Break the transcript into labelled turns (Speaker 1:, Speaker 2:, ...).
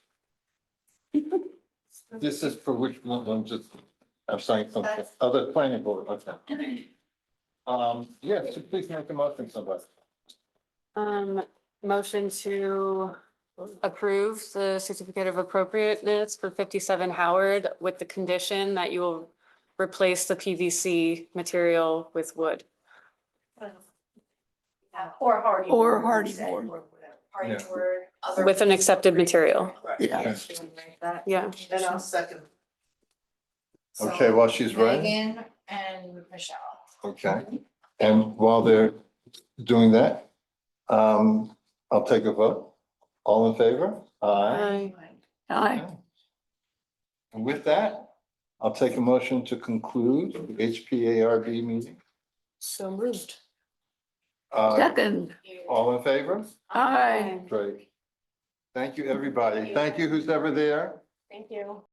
Speaker 1: This is for which one, I'm just, I'm saying something, other planning board, okay. Um, yes, please make a motion, somebody.
Speaker 2: Um, motion to approve the certificate of appropriateness for fifty-seven Howard with the condition that you will replace the PVC material with wood.
Speaker 3: Or hardy.
Speaker 4: Or
Speaker 3: board,
Speaker 4: hardy
Speaker 3: you said,
Speaker 4: board.
Speaker 3: or whatever, Hardy
Speaker 1: Yeah.
Speaker 3: board. other-
Speaker 2: With an accepted material.
Speaker 3: Correct.
Speaker 4: Yeah.
Speaker 1: Yes.
Speaker 3: Should we write that?
Speaker 2: Yeah,
Speaker 3: Then I'll second. So,
Speaker 1: Okay, while she's writing,
Speaker 3: Megan and Michelle.
Speaker 1: okay, and while they're doing that, um, I'll take a vote. All in favor? Aye.
Speaker 2: Aye.
Speaker 4: Aye.
Speaker 1: And with that, I'll take a motion to conclude the HPARB meeting.
Speaker 2: So moved.
Speaker 1: Uh,
Speaker 4: Second,
Speaker 1: all in favor?
Speaker 4: aye.
Speaker 1: Great. Thank you, everybody. Thank you, who's ever there.
Speaker 3: Thank you.